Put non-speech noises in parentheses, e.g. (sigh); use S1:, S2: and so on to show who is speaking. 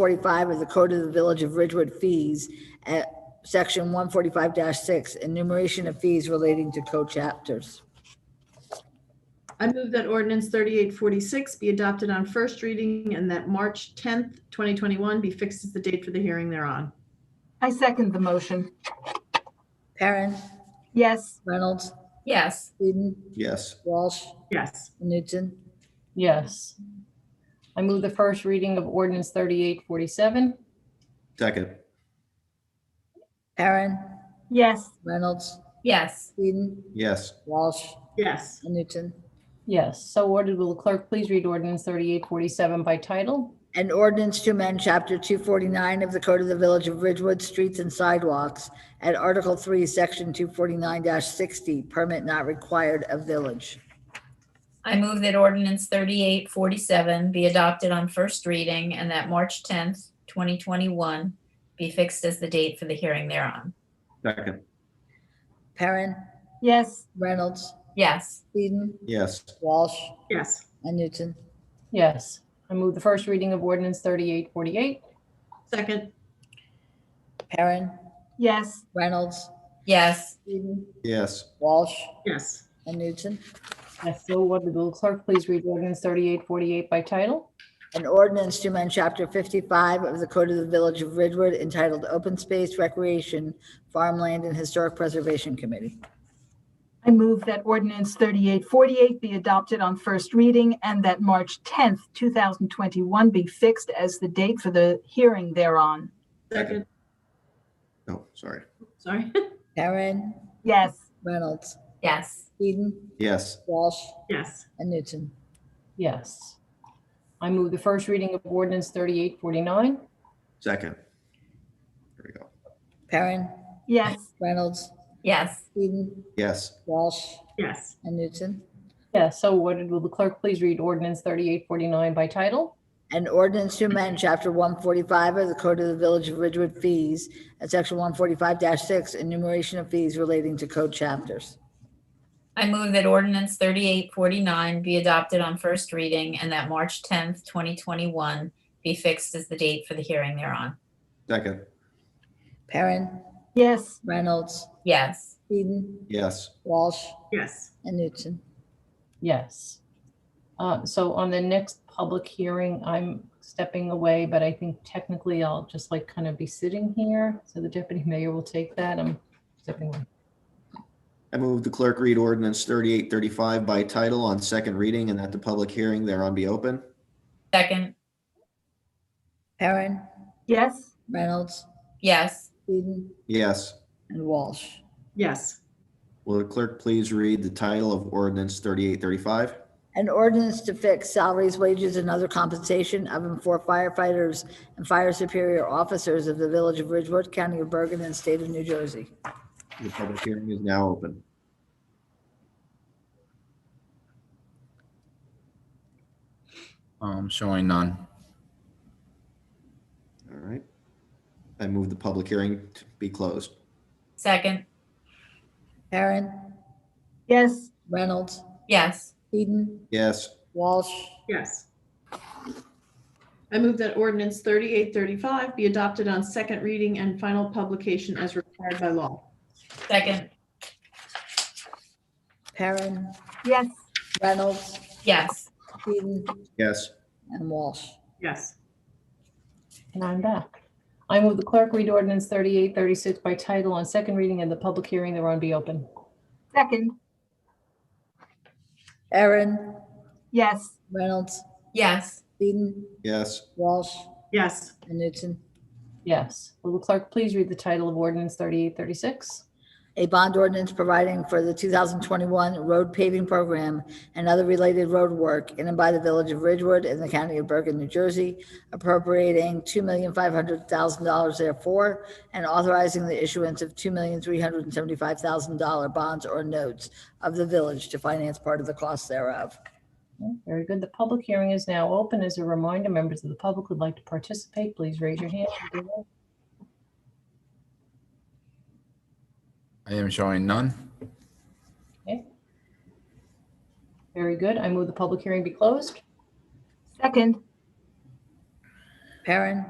S1: 45 of the Code of the Village of Ridgewood fees at section 145-6, enumeration of fees relating to co-chapters.
S2: I move that ordinance thirty-eight forty-six be adopted on first reading and that March tenth, twenty twenty-one be fixed as the date for the hearing thereon.
S3: I second the motion.
S1: Perrin,
S3: Yes.
S1: Reynolds,
S4: Yes,
S1: Eden,
S5: Yes,
S1: Walsh,
S2: Yes,
S1: Newton.
S6: Yes. I move the first reading of ordinance thirty-eight forty-seven.
S5: second,
S1: Perrin,
S3: Yes.
S1: Reynolds,
S4: yes,
S1: Eden,
S5: yes,
S1: Walsh,
S2: yes,
S1: Newton.
S6: Yes, so ordered. Will the clerk please read ordinance thirty-eight forty-seven by title?
S1: An ordinance to amend Chapter 249 of the Code of the Village of Ridgewood Streets and Sidewalks at Article 3, Section 249-60, permit not required of village.
S4: I move that ordinance thirty-eight forty-seven be adopted on first reading and that March tenth, twenty twenty-one be fixed as the date for the hearing thereon.
S5: second,
S1: Perrin,
S3: Yes.
S1: Reynolds,
S4: Yes,
S1: Eden,
S5: yes,
S1: Walsh,
S2: yes,
S1: and Newton.
S6: Yes, I move the first reading of ordinance thirty-eight forty-eight.
S2: second,
S1: Perrin,
S3: Yes.
S1: Reynolds,
S4: yes,
S1: Eden,
S5: yes,
S1: Walsh,
S2: yes,
S1: and Newton.
S6: Yes, so ordered. Will the clerk please read ordinance thirty-eight forty-eight by title?
S1: An ordinance to amend Chapter 55 of the Code of the Village of Ridgewood entitled Open Space Recreation, Farmland, and Historic Preservation Committee.
S3: I move that ordinance 3848 be adopted on first reading and that March 10th, 2021 be fixed as the date for the hearing thereon.
S2: second,
S5: oh, sorry,
S2: sorry, (laughs)
S1: Perrin,
S3: Yes.
S1: Reynolds,
S4: yes,
S1: Eden,
S5: yes,
S1: Walsh,
S2: yes,
S1: and Newton.
S6: Yes. I move the first reading of ordinance thirty-eight forty-nine.
S5: second. There we go.
S1: Perrin,
S3: Yes.
S1: Reynolds,
S4: yes,
S1: Eden,
S5: Yes,
S1: Walsh,
S2: yes,
S1: and Newton.
S6: Yes, so ordered. Will the clerk please read ordinance thirty-eight forty-nine by title?
S1: An ordinance to amend Chapter 145 of the Code of the Village of Ridgewood Fees at Section 145-6, enumeration of fees relating to code chapters.
S4: I move that ordinance thirty-eight forty-nine be adopted on first reading and that March tenth, twenty twenty-one be fixed as the date for the hearing thereon.
S5: second,
S1: Perrin,
S3: Yes.
S1: Reynolds,
S4: Yes,
S1: Eden,
S5: yes,
S1: Walsh,
S2: yes,
S1: and Newton.
S6: Yes. Uh, So on the next public hearing, I'm stepping away, but I think technically I'll just like kind of be sitting here. So the deputy (laughs) mayor will take that. I'm stepping away.
S5: I move the clerk read ordinance thirty-eight thirty-five by title on second reading and that the public hearing thereon be open.
S4: second,
S1: Perrin,
S3: Yes.
S1: Reynolds,
S4: yes,
S1: Eden,
S5: Yes,
S1: and Walsh.
S2: yes,
S5: will the clerk please read the title of ordinance thirty-eight thirty-five?
S1: An ordinance to fix salaries, wages, and other compensation of and for firefighters and fire superior officers of the Village of Ridgewood, County of Bergen, and State of New Jersey.
S5: The public hearing is now open.
S7: Um, showing none.
S5: All right. I move the public hearing to be closed.
S4: second,
S1: Perrin,
S3: Yes.
S1: Reynolds,
S4: yes,
S1: Eden,
S5: Yes,
S1: Walsh,
S2: yes. I move that ordinance thirty-eight thirty-five be adopted on second reading and final publication as required by law.
S4: second,
S1: Perrin,
S3: Yes.
S1: Reynolds,
S4: yes,
S1: Eden,
S5: yes,
S1: and Walsh.
S2: Yes,
S6: And I'm back. I move the clerk read ordinance 3836 by title on second reading and the public hearing thereon be open.
S3: Second.
S1: Perrin,
S3: Yes.
S1: Reynolds,
S4: yes,
S1: Eden,
S5: yes,
S1: Walsh,
S2: yes,
S1: and Newton.
S6: Yes. Will the clerk please read the title of ordinance 3836?
S1: A bond ordinance providing for the 2021 road paving program and other related road work in and by the Village of Ridgewood in the County of Bergen, New Jersey, appropriating $2,500,000 therefore, and authorizing the issuance of $2,375,000 bonds or notes of the village to finance part of the cost thereof.
S6: Okay, Very good. The public hearing is now open. As a reminder, members of the public would like to participate, please raise your hand.
S7: I am showing none.
S6: Very good. I move the public hearing be closed.
S3: Second.
S1: Perrin,